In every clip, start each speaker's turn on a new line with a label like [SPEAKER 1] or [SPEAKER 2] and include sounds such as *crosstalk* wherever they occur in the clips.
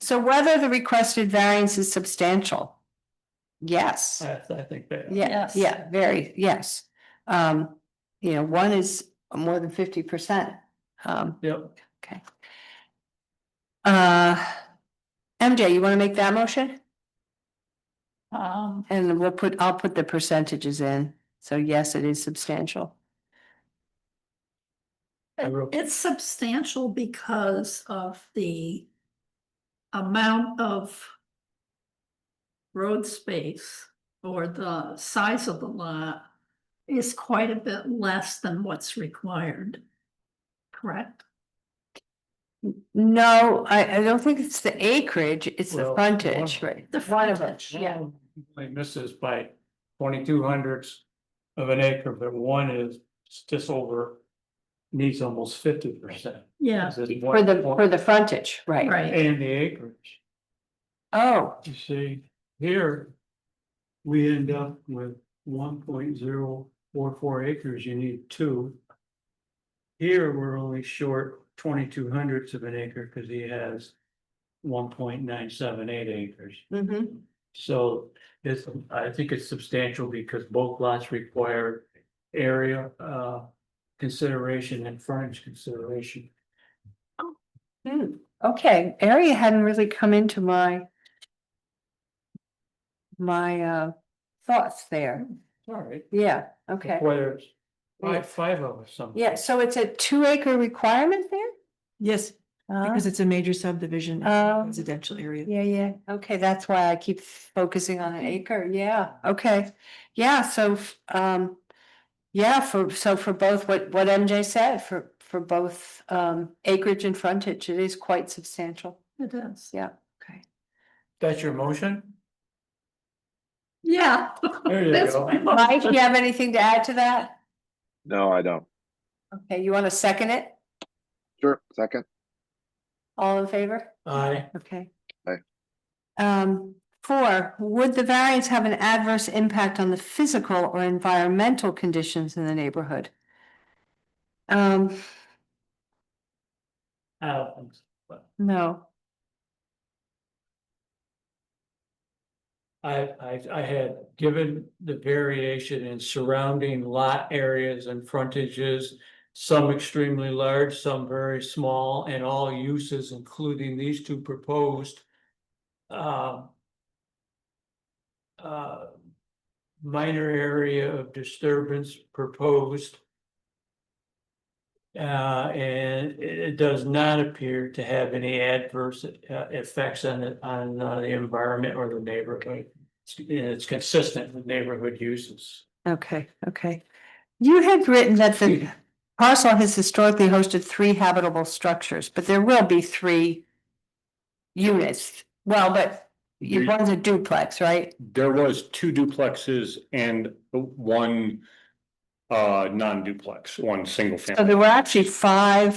[SPEAKER 1] So whether the requested variance is substantial? Yes.
[SPEAKER 2] I, I think that.
[SPEAKER 1] Yeah,
[SPEAKER 3] Yes.
[SPEAKER 1] yeah, very, yes. Um, you know, one is more than fifty percent. Um,
[SPEAKER 2] Yep,
[SPEAKER 1] okay. Uh, MJ, you wanna make that motion?
[SPEAKER 3] Um,
[SPEAKER 1] And we'll put, I'll put the percentages in. So yes, it is substantial.
[SPEAKER 2] I wrote-
[SPEAKER 3] it's substantial because of the amount of road space or the size of the lot is quite a bit less than what's required. Correct?
[SPEAKER 1] No, I, I don't think it's the acreage, it's the
[SPEAKER 2] Well,
[SPEAKER 1] frontage,
[SPEAKER 2] one-
[SPEAKER 1] right?
[SPEAKER 3] The
[SPEAKER 1] One of them,
[SPEAKER 3] frontage,
[SPEAKER 1] yeah.
[SPEAKER 2] Like misses by twenty-two hundredths of an acre, but one is just over, needs almost fifty percent.
[SPEAKER 3] Yeah,
[SPEAKER 1] For the, for the frontage, right?
[SPEAKER 3] right,
[SPEAKER 2] And the acreage,
[SPEAKER 1] Oh,
[SPEAKER 2] you see, here, we end up with one point zero four four acres, you need two. Here, we're only short twenty-two hundredths of an acre, because he has one point nine seven eight acres.
[SPEAKER 1] mhm.
[SPEAKER 2] So it's, I think it's substantial because both lots require area uh consideration and frontage consideration.
[SPEAKER 1] Hmm, okay, area hadn't really come into my. My uh thoughts there,
[SPEAKER 2] All right.
[SPEAKER 1] yeah, okay,
[SPEAKER 2] Whether it's five, five of us, some.
[SPEAKER 1] yeah, so it's a two acre requirement there?
[SPEAKER 4] Yes,
[SPEAKER 3] Uh-huh.
[SPEAKER 1] Uh,
[SPEAKER 4] because it's a major subdivision, it's a
[SPEAKER 3] Um,
[SPEAKER 1] Oh.
[SPEAKER 4] residential area.
[SPEAKER 1] Yeah, yeah, okay, that's why I keep focusing on an acre, yeah, okay, yeah, so f- um. Yeah, for, so for both what what MJ said, for for both um acreage and frontage, it is quite substantial,
[SPEAKER 3] it is.
[SPEAKER 1] yeah, okay.
[SPEAKER 2] That's your motion?
[SPEAKER 3] Yeah.
[SPEAKER 2] There you
[SPEAKER 3] That's
[SPEAKER 2] go.
[SPEAKER 3] my mo-
[SPEAKER 1] Mike, you have anything to add to that?
[SPEAKER 5] No, I don't.
[SPEAKER 1] Okay, you wanna second it?
[SPEAKER 5] Sure, second.
[SPEAKER 1] All in favor?
[SPEAKER 2] Aye.
[SPEAKER 1] Okay.
[SPEAKER 5] Aye.
[SPEAKER 1] Um, four, would the variance have an adverse impact on the physical or environmental conditions in the neighborhood? Um,
[SPEAKER 2] Out.
[SPEAKER 1] no,
[SPEAKER 2] I I I had given the variation in surrounding lot areas and frontages. Some extremely large, some very small, and all uses, including these two proposed. um, uh, Minor area of disturbance proposed. Uh, and it it does not appear to have any adverse uh, effects on it, on uh, the environment or the neighborhood. It's- It's consistent with neighborhood uses.
[SPEAKER 1] okay, okay. You had written that the parcel has historically hosted three habitable structures, but there will be three units. Well, but you- one's a duplex, right?
[SPEAKER 6] There was two duplexes and one uh non-duplex, one single
[SPEAKER 1] So
[SPEAKER 6] family,
[SPEAKER 1] there were actually five,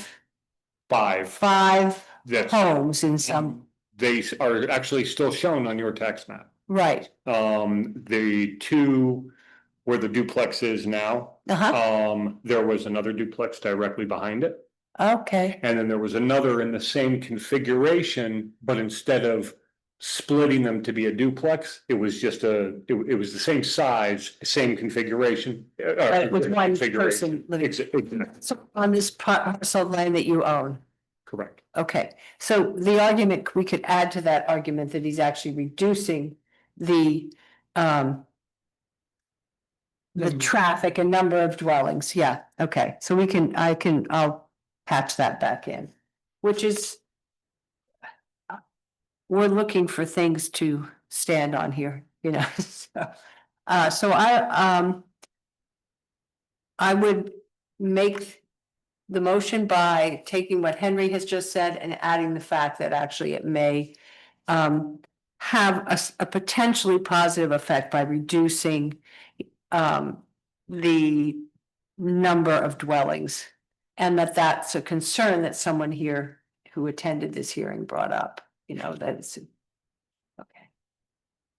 [SPEAKER 6] five.
[SPEAKER 1] five
[SPEAKER 6] That's,
[SPEAKER 1] homes in some,
[SPEAKER 6] they are actually still shown on your tax map.
[SPEAKER 1] right,
[SPEAKER 6] Um, the two where the duplex is now,
[SPEAKER 1] uh-huh,
[SPEAKER 6] um, there was another duplex directly behind it.
[SPEAKER 1] okay,
[SPEAKER 6] And then there was another in the same configuration, but instead of splitting them to be a duplex, it was just a, it, it was the same size, same configuration. uh,
[SPEAKER 1] but with
[SPEAKER 6] uh,
[SPEAKER 1] one
[SPEAKER 6] configuration.
[SPEAKER 1] person living.
[SPEAKER 6] Ex- ex-
[SPEAKER 1] So on this parcel of land that you own,
[SPEAKER 6] Correct.
[SPEAKER 1] okay, so the argument, we could add to that argument that he's actually reducing the, um, the
[SPEAKER 2] Number.
[SPEAKER 1] traffic and number of dwellings, yeah, okay, so we can, I can, I'll patch that back in, which is we're looking for things to stand on here, you know, *laughs* so, uh, so I, um. I would make the motion by taking what Henry has just said and adding the fact that actually it may. Um, have a, s- a potentially positive effect by reducing, um, the number of dwellings. And that that's a concern that someone here who attended this hearing brought up, you know, that it's. Okay.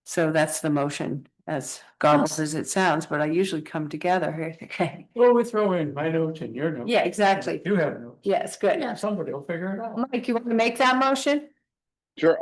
[SPEAKER 1] So that's the motion, as garbled as it sounds, but I usually come together here, *laughs* okay?
[SPEAKER 2] Well, we throw in my notes and your notes.
[SPEAKER 1] Yeah, exactly.
[SPEAKER 2] You have notes.
[SPEAKER 1] Yes, good.
[SPEAKER 3] Yeah.
[SPEAKER 2] Somebody will figure it out.
[SPEAKER 1] Mike, you want to make that motion?
[SPEAKER 5] Sure,